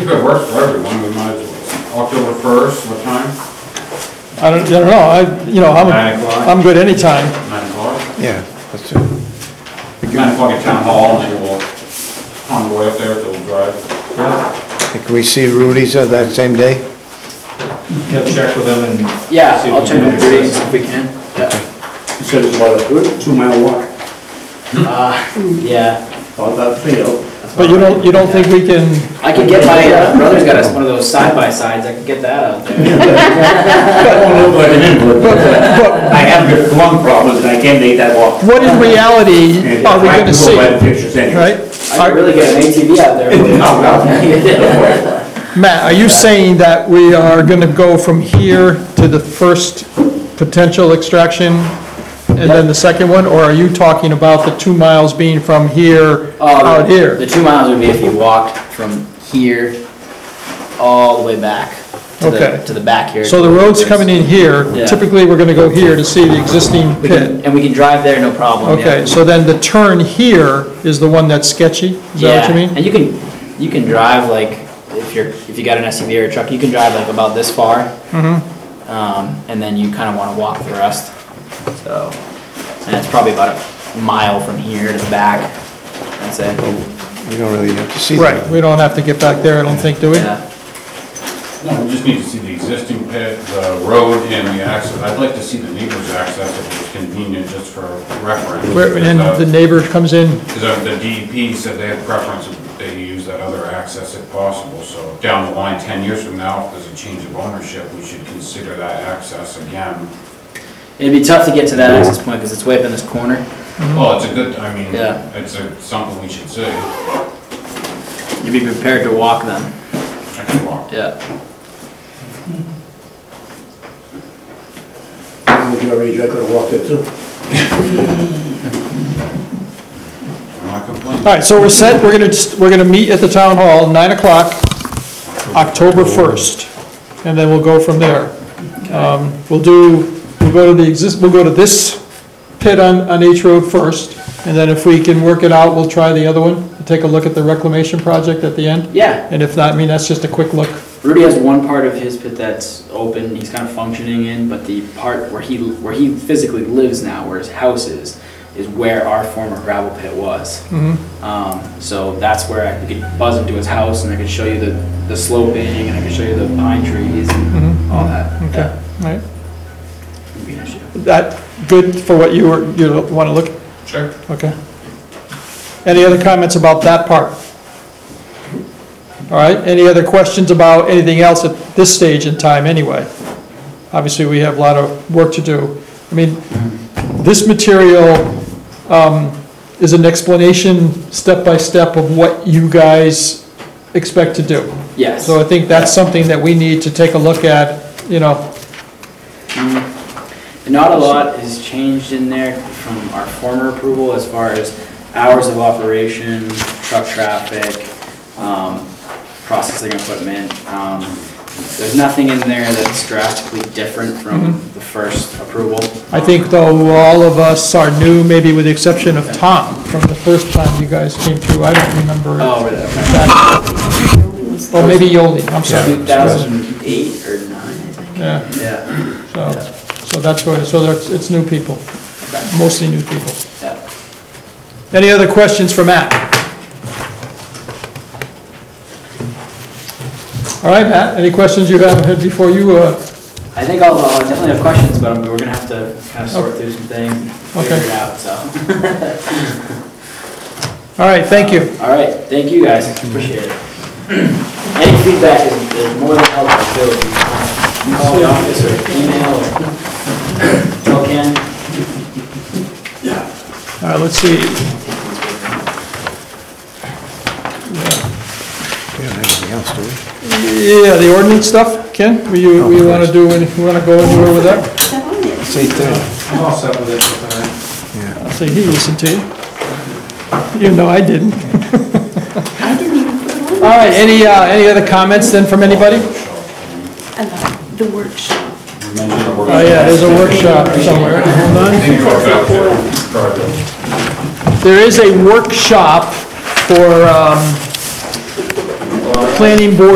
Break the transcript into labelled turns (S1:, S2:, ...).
S1: good work for everyone, we might as well. October first, what time?
S2: I don't, I don't know, I, you know, I'm,
S1: Nine o'clock.
S2: I'm good anytime.
S1: Nine o'clock?
S3: Yeah, that's it.
S1: Nine o'clock at town hall, and then we'll, on the way up there, they'll drive.
S3: Can we see Rudy's uh, that same day?
S4: Yeah, check with them and.
S5: Yeah,
S4: see if
S5: I'll
S4: we
S5: check
S4: can
S5: with
S4: access
S5: Rudy
S4: it.
S5: if we can. Yeah.
S6: You said it's about a two mile walk,
S5: Uh, yeah.
S6: about that field.
S2: But you don't, you don't think we can,
S5: I could get my, uh, brother's got us one of those side-by-sides, I could get that out there.
S6: I have good lung problems, and I can't make that walk.
S2: what in reality
S6: And
S2: are we
S6: I
S2: Oh, gonna
S6: can go
S2: see,
S6: by the pictures anyway.
S2: right?
S5: I could really get an ATV out there.
S6: Oh, well.
S2: Matt, are you saying that we are gonna go from here to the first potential extraction and then the second one, or are you talking about the two miles being from here
S5: Um,
S2: out
S5: The
S2: here?
S5: two miles would be if you walked from here all the way back to
S2: Okay.
S5: the, to the back here.
S2: So the road's coming in here,
S5: Yeah.
S2: typically, we're gonna go here to see the existing
S5: We can-
S2: pit.
S5: And we can drive there, no problem, yeah.
S2: Okay, so then the turn here is the one that's sketchy, is that what
S5: Yeah,
S2: you mean?
S5: And you can, you can drive like, if you're, if you got an SUV or a truck, you can drive like about this far.
S2: Mm-hmm.
S5: Um, and then you kinda wanna walk the rest, so, and it's probably about a mile from here to the back, I'd say,
S3: We don't really have to see
S2: Right,
S3: that.
S2: we don't have to get back there, I don't think, do we?
S5: yeah.
S1: No, we just need to see the existing pit, the road, and the access. I'd like to see the neighbor's access if it's convenient, just for reference.
S2: Where, and the neighbor comes in,
S1: Because uh, the DEP said they had preference if they use that other access if possible, so down the line, 10 years from now, if there's a change of ownership, we should consider that access again.
S5: It'd be tough to get to that access point, cause it's way up in this corner,
S1: Well, it's a good, I mean,
S5: Yeah.
S1: it's a- something we should see.
S5: you'd be prepared to walk them,
S1: I can walk.
S5: yeah.
S6: If you already, I could have walked it too.
S1: I'm not complaining.
S2: All right, so we're set, we're gonna, we're gonna meet at the town hall, nine o'clock, October first, and then we'll go from there. Um, We'll do, we'll go to the exist, we'll go to this pit on, on H Road first, and then if we can work it out, we'll try the other one, take a look at the reclamation project at the end,
S5: Yeah,
S2: and if not, I mean, that's just a quick look.
S5: Rudy has one part of his pit that's open, he's kind of functioning in, but the part where he, where he physically lives now, where his house is, is where our former gravel pit was.
S2: Mm-hmm.
S5: Um, so that's where I could buzz him to his house and I could show you the, the sloping and I could show you the pine trees and all that.
S2: Mm-hmm. Okay, all right,
S5: That would be an issue.
S2: that, good for what you were, you wanna look,
S1: Sure.
S2: okay. Any other comments about that part? All right, any other questions about anything else at this stage in time anyway? Obviously, we have a lot of work to do. I mean, this material um, is an explanation, step-by-step, of what you guys expect to do.
S5: Yes.
S2: So I think that's something that we need to take a look at, you know,
S5: Not a lot is changed in there from our former approval as far as hours of operation, truck traffic, um, processing equipment. Um, There's nothing in there that's drastically different from
S2: Mm-hmm.
S5: the first approval.
S2: I think though, all of us are new, maybe with the exception of Tom, from the first time you guys came through, I don't remember.
S5: Oh, really? Okay.
S2: Or maybe Yoli, I'm sorry.
S5: 2008 or 9, I think.
S2: Yeah,
S5: Yeah.
S2: so, so that's what, so that's, it's new people, mostly new people.
S5: yeah.
S2: Any other questions for Matt? All right, Matt, any questions you have had before you, uh,
S5: I think I'll I'll definitely have questions, but we're going to have to kind of sort through some things, and figure
S2: Oh. Okay.
S5: it out, so.
S2: all right, thank you.
S5: All right, thank you guys, appreciate it. Any feedback is is more than helpful, so if you call the office or email or tell Ken.
S2: All right, let's see.
S3: We don't have anything else, do we?
S2: Yeah, the ordinance stuff, Ken, we, we wanna do, any- we wanna go anywhere with that?
S3: It's eight thirty.
S4: I'm all set with it for tonight.
S2: I'll say he listened to you. You know I didn't.
S7: I didn't even put it on.
S2: All right, any, uh, any other comments then from anybody?
S7: About the workshop.
S1: We mentioned the work-
S2: Oh, yeah, there's a workshop somewhere. Hold on.
S1: Thank you for that, uh, project.
S2: There is a workshop for, um, planning board